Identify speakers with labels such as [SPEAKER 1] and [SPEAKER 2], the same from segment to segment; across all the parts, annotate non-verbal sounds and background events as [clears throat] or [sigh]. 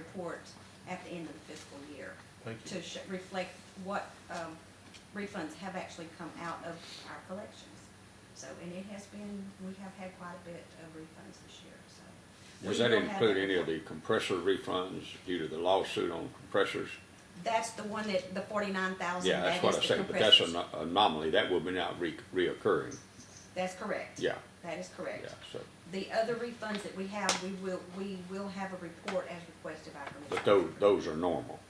[SPEAKER 1] report at the end of the fiscal year
[SPEAKER 2] Thank you.
[SPEAKER 1] to sh- reflect what um, refunds have actually come out of our collections. So, and it has been, we have had quite a bit of refunds this year, so.
[SPEAKER 3] Does
[SPEAKER 1] We
[SPEAKER 3] that
[SPEAKER 1] will have-
[SPEAKER 3] include any of the compressor refunds due to the lawsuit on compressors?
[SPEAKER 1] That's the one that, the forty-nine thousand,
[SPEAKER 3] Yeah,
[SPEAKER 1] that
[SPEAKER 3] that's what
[SPEAKER 1] is
[SPEAKER 3] I
[SPEAKER 1] the
[SPEAKER 3] said, but that's
[SPEAKER 1] compressors.
[SPEAKER 3] an anomaly, that will be not re- reoccurring,
[SPEAKER 1] That's correct.
[SPEAKER 3] Yeah.
[SPEAKER 1] That is
[SPEAKER 3] yeah,
[SPEAKER 1] correct.
[SPEAKER 3] so,
[SPEAKER 1] The other refunds that we have, we will, we will have a report as requested by Commissioner.
[SPEAKER 3] but those, those are normal.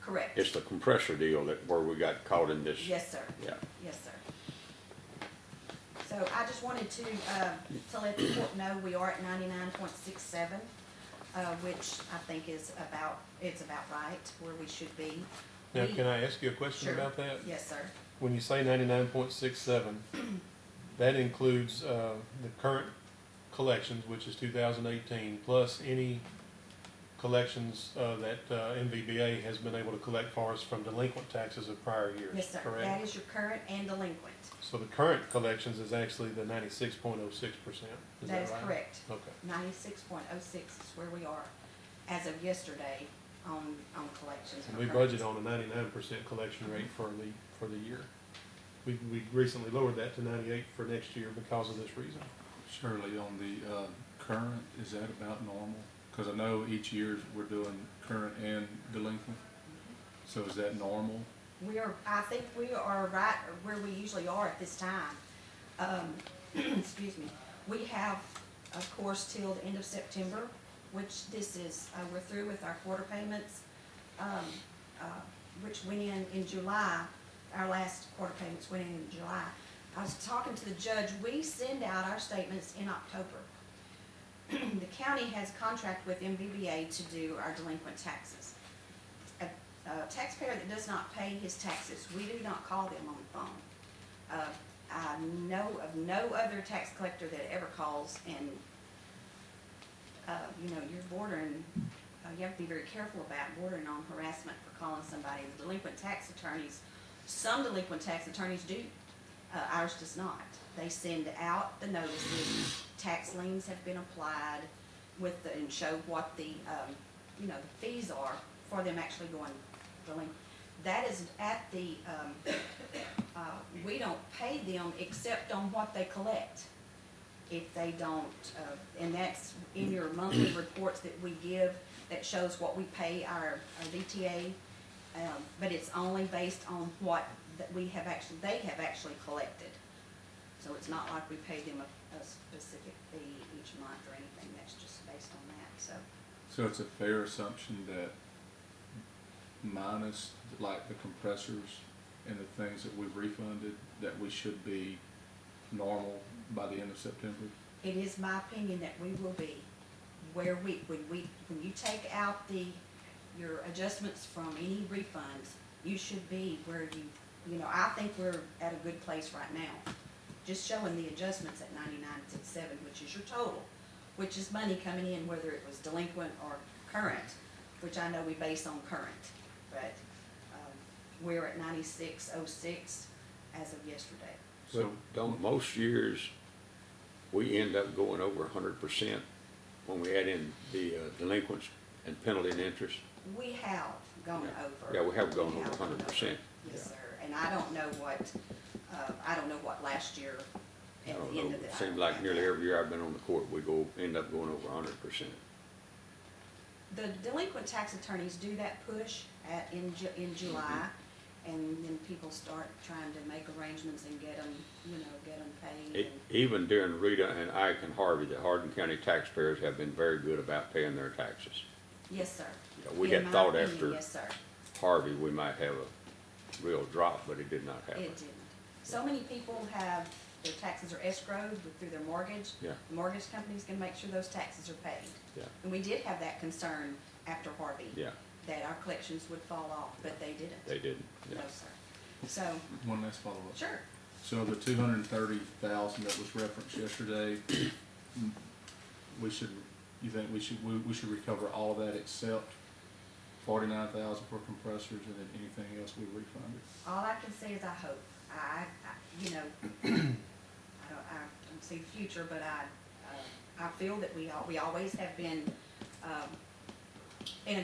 [SPEAKER 1] Correct.
[SPEAKER 3] It's the compressor deal that, where we got caught in this.
[SPEAKER 1] Yes, sir.
[SPEAKER 3] Yeah,
[SPEAKER 1] Yes, sir. So I just wanted to, uh, to let the court know we are at ninety-nine point six seven, uh, which I think is about, it's about right where we should be.
[SPEAKER 2] Now,
[SPEAKER 1] We-
[SPEAKER 2] can I ask you a question
[SPEAKER 1] Sure.
[SPEAKER 2] about that?
[SPEAKER 1] Yes, sir.
[SPEAKER 2] When you say ninety-nine point six
[SPEAKER 1] [clears throat]
[SPEAKER 2] seven, that includes, uh, the current collections, which is two thousand eighteen, plus any collections, uh, that, uh, MVBA has been able to collect for us from delinquent taxes of prior years,
[SPEAKER 1] Yes, sir. That
[SPEAKER 2] correct?
[SPEAKER 1] is your current and delinquent.
[SPEAKER 2] So the current collections is actually the ninety-six point oh six percent, is that
[SPEAKER 1] That
[SPEAKER 2] right?
[SPEAKER 1] is correct.
[SPEAKER 2] Okay.
[SPEAKER 1] Ninety-six point oh six is where we are as of yesterday on, on collections.
[SPEAKER 2] And we budget on a ninety-nine percent collection
[SPEAKER 1] Mm-hmm.
[SPEAKER 2] rate for the, for the year. We, we recently lowered that to ninety-eight for next year because of this reason.
[SPEAKER 4] Shirley, on the uh, current, is that about normal? Because I know each year we're doing current and delinquent. So is that normal?
[SPEAKER 1] We are, I think we are right where we usually are at this time. Um, [clears throat] excuse me. We have, of course, till the end of September, which this is, uh, we're through with our quarter payments. Um, uh, which went in in July, our last quarter payments went in in July. I was talking to the judge, we send out our statements in October. [clears throat] The county has contract with MVBA to do our delinquent taxes a a taxpayer that does not pay his taxes, we do not call them on the phone. Uh, I know of no other tax collector that ever calls and, uh, you know, you're bordering, uh, you have to be very careful about bordering on harassment for calling somebody. The delinquent tax attorneys, some delinquent tax attorneys do, uh, ours does not. They send out the notices, tax liens have been applied with the, and show what the, um, you know, the fees are for them actually going delinquent. That is at the, um, uh, we don't pay them except on what they collect. If they don't, uh, and that's in your monthly reports that we give that shows what we pay our, our DTA. Um, but it's only based on what that we have actually, they have actually collected. So it's not like we pay them a, a specific fee each month or anything, that's just based on that, so.
[SPEAKER 4] So it's a fair assumption that minus like the compressors and the things that we've refunded, that we should be normal by the end of September?
[SPEAKER 1] It is my opinion that we will be where we, when we, when you take out the, your adjustments from any refunds, you should be where you, you know, I think we're at a good place right now. Just showing the adjustments at ninety-nine six seven, which is your total, which is money coming in, whether it was delinquent or current, which I know we base on current, but, um, we're at ninety-six oh six as of yesterday.
[SPEAKER 3] but
[SPEAKER 4] So-
[SPEAKER 3] don't, most years, we end up going over hundred percent when we add in the uh, delinquents and penalty and interest.
[SPEAKER 1] We have gone
[SPEAKER 3] Yeah.
[SPEAKER 1] over.
[SPEAKER 3] Yeah, we have gone over
[SPEAKER 1] have gone
[SPEAKER 3] 100%.
[SPEAKER 1] Yes,
[SPEAKER 3] Yeah.
[SPEAKER 1] sir, and I don't know what, uh, I don't know what last year
[SPEAKER 3] I
[SPEAKER 1] at
[SPEAKER 3] don't
[SPEAKER 1] the
[SPEAKER 3] know,
[SPEAKER 1] end of the.
[SPEAKER 3] it seems like nearly every year I've been on the court, we go, end up going over hundred percent.
[SPEAKER 1] The delinquent tax attorneys do that push at, in Ju-
[SPEAKER 3] Mm-hmm.
[SPEAKER 1] in July, and then people start trying to make arrangements and get them, you know, get them paid.
[SPEAKER 3] E-
[SPEAKER 1] and-
[SPEAKER 3] Even during Rita and Ike and Harvey, the Hardin County taxpayers have been very good about paying their taxes.
[SPEAKER 1] Yes, sir.
[SPEAKER 3] Yeah, we
[SPEAKER 1] In
[SPEAKER 3] had
[SPEAKER 1] my
[SPEAKER 3] thought
[SPEAKER 1] opinion,
[SPEAKER 3] after-
[SPEAKER 1] Yes, sir.
[SPEAKER 3] Harvey, we might have a real drop, but it did not happen.
[SPEAKER 1] It didn't. So many people have, their taxes are escrowed through their mortgage.
[SPEAKER 3] Yeah.
[SPEAKER 1] The mortgage company's gonna make sure those taxes are paid.
[SPEAKER 3] Yeah.
[SPEAKER 1] And we did have that concern after Harvey.
[SPEAKER 3] Yeah.
[SPEAKER 1] That our collections would fall off, but they didn't.
[SPEAKER 3] They didn't, yeah.
[SPEAKER 1] No, sir. So,
[SPEAKER 4] One last follow-up.
[SPEAKER 1] sure,
[SPEAKER 4] So the two hundred and thirty thousand that was referenced yesterday, we should, you think we should, we, we should recover all of that except forty-nine thousand for compressors and then anything else we refunded?
[SPEAKER 1] all I can say is I hope. I, I, you know, [clears throat] I don't, I don't see the future, but I, uh, I feel that we al- we always have been, um, in a